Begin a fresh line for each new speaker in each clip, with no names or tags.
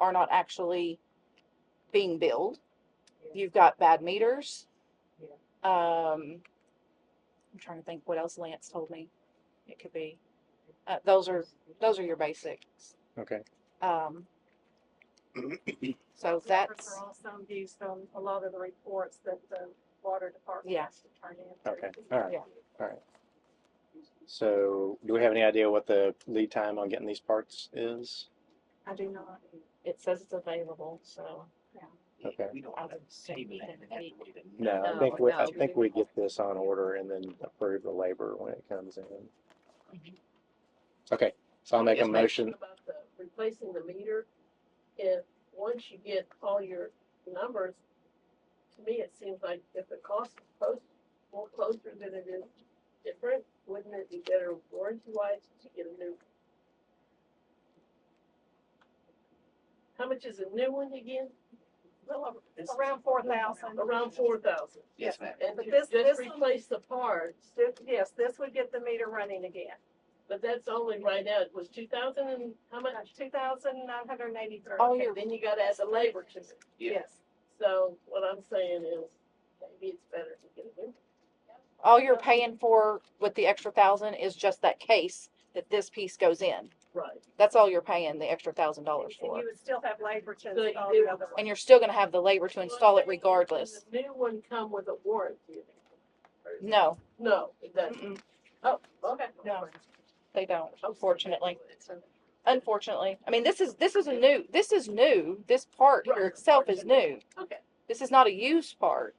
are not actually being billed. You've got bad meters.
Yeah.
Um, I'm trying to think what else Lance told me it could be. Uh, those are, those are your basics.
Okay.
Um, so
Reports
that's,
Are also used on a lot of the reports that the water department
Yeah.
has to turn in.
Okay, all right.
Yeah.
So do we have any idea what the lead time on getting these parts is?
I do not.
it says it's available, so.
Okay.
We don't
I
want to
would say
table that.
within
and
a
have to
week.
wait a-
No, I
No,
think we, I
no.
think we get this on order and then approve the labor when it comes in.
Mhm.
Okay, so I'll make a
Yes, ma'am.
motion.
About the replacing the meter, if, once you get all your numbers, to me, it seems like if the cost is close, more closer than it is different, wouldn't it be better warranty wise to get a new? How much is a new one again?
Well,
This-
Around four thousand.
Around four thousand,
Yes, ma'am.
and
But
to
this-
just
this one-
replace the parts,
Yes, this would get the meter running again.
but that's only right now, it was two thousand and how much?
Two thousand nine hundred and eighty-three.
Oh,
Okay,
you're-
Then you gotta add the labor to it.
Yeah.
Yes.
So what I'm saying is, maybe it's better to get a new.
All you're paying for with the extra thousand is just that case that this piece goes in.
Right.
That's all you're paying the extra thousand
And
dollars
you
for.
would still have labor to
So you
install
do-
the other
And
one.
you're still gonna have the labor to install it regardless.
Does the new one come with a warranty?
No,
No, it doesn't.
mm-mm,
Oh, okay.
No. they don't,
Oh,
unfortunately.
so-
Unfortunately, I mean, this is, this is a new, this is new. This part here
Right.
itself is new.
Okay.
This is not a used part.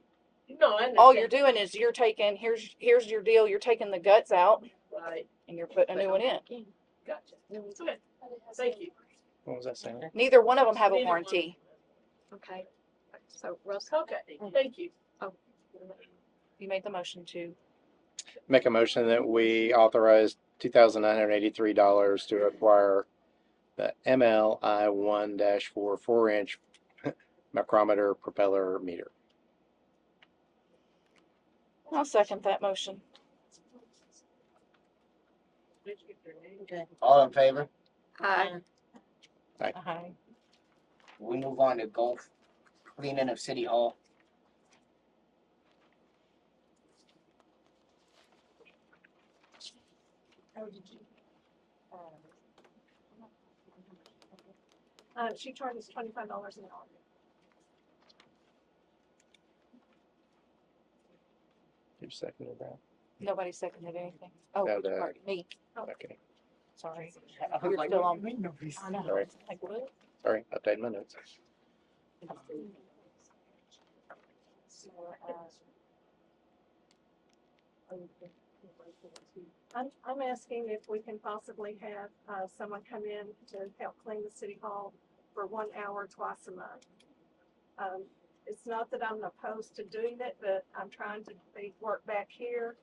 No, I
All Oh, you're
understand.
doing is you're taking, here's, here's your deal, you're taking the guts out
Right.
and you're putting a new one in.
Gotcha. Okay, thank you.
What was that saying?
Neither one of them have a
Neither one.
warranty. Mm.
Okay, so Russell,
Okay, thank you.
You made the motion to,
Make a motion that we authorize two thousand nine hundred eighty-three dollars to acquire the MLI one dash four, four-inch micrometer propeller meter.
I'll second that motion.
All in favor?
hi,
Aye.
We move on to golf cleaning of City Hall.
Uh, she charges twenty-five dollars an hour.
Who seconded that?
Nobody seconded anything. Oh,
No, the-
pardon me,
Okay,
sorry.
I was
You're
like,
still
what
on.
do you mean nobody's-
I know.
Sorry.
Like, what?
sorry, updated my notes.
I'm, I'm asking if we can possibly have, uh, someone come in to help clean the city hall for one hour twice a month. Um, it's not that I'm opposed to doing it, but I'm trying to be, work back here.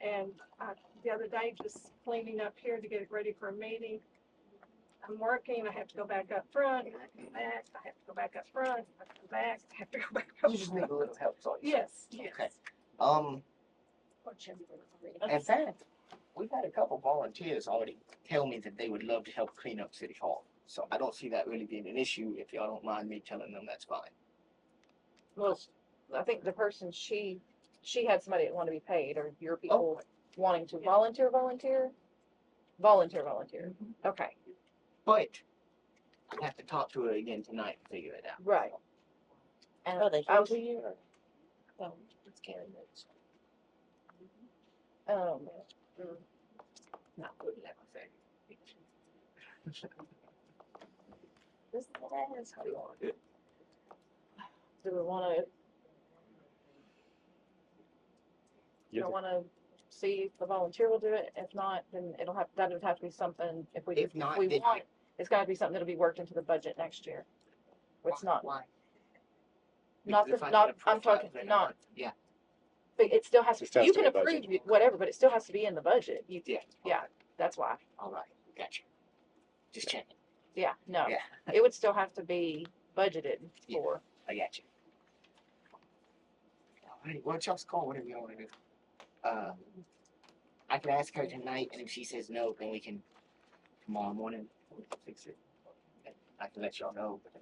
And, uh, the other day, just cleaning up here to get it ready for a meeting. I'm working, I have to go back up front, I come back, I have to go back up front, I come back, I have to go back up
You just
front.
need a little help, so.
Yes, yes.
Okay. Um, in fact, we've had a couple volunteers already tell me that they would love to help clean up City Hall. So I don't see that really being an issue. If y'all don't mind me telling them, that's fine.
Well, I think the person she, she had somebody that wanted to be paid or your
Oh.
people wanting to volunteer, volunteer? Volunteer, volunteer.
Mm-hmm.
Okay,
But I'd have to talk to her again tonight to figure it out.
right. And
Oh, they
I
Uh,
came
was,
to you or?
Well, it's Karen notes.
um,
Not good, like I said.
This is what I was
How do you want to do it?
do we wanna, do we wanna see if the volunteer will do it? If not, then it'll have, that would have to be something, if we, if
If not,
we
then-
want, it's gotta be something that'll be worked into the budget next year. It's not,
Why?
Not
Because
the-
if I
not-
get
I'm
approved, I
talking-
would then
not-
Yeah.
but it still has
It
to,
still has
you
to
can
be budgeted.
approve whatever, but it still has to be in the budget. You,
Yeah.
Yeah. that's why.
All right, gotcha. Just checking.
Yeah, no,
Yeah.
it would still have to be budgeted
Yeah.
for.
I got you. All right, well, y'all's call, whatever y'all wanna do. Uh, I can ask her tonight, and if she says no, then we can, tomorrow morning, we can fix it. I can let y'all know, but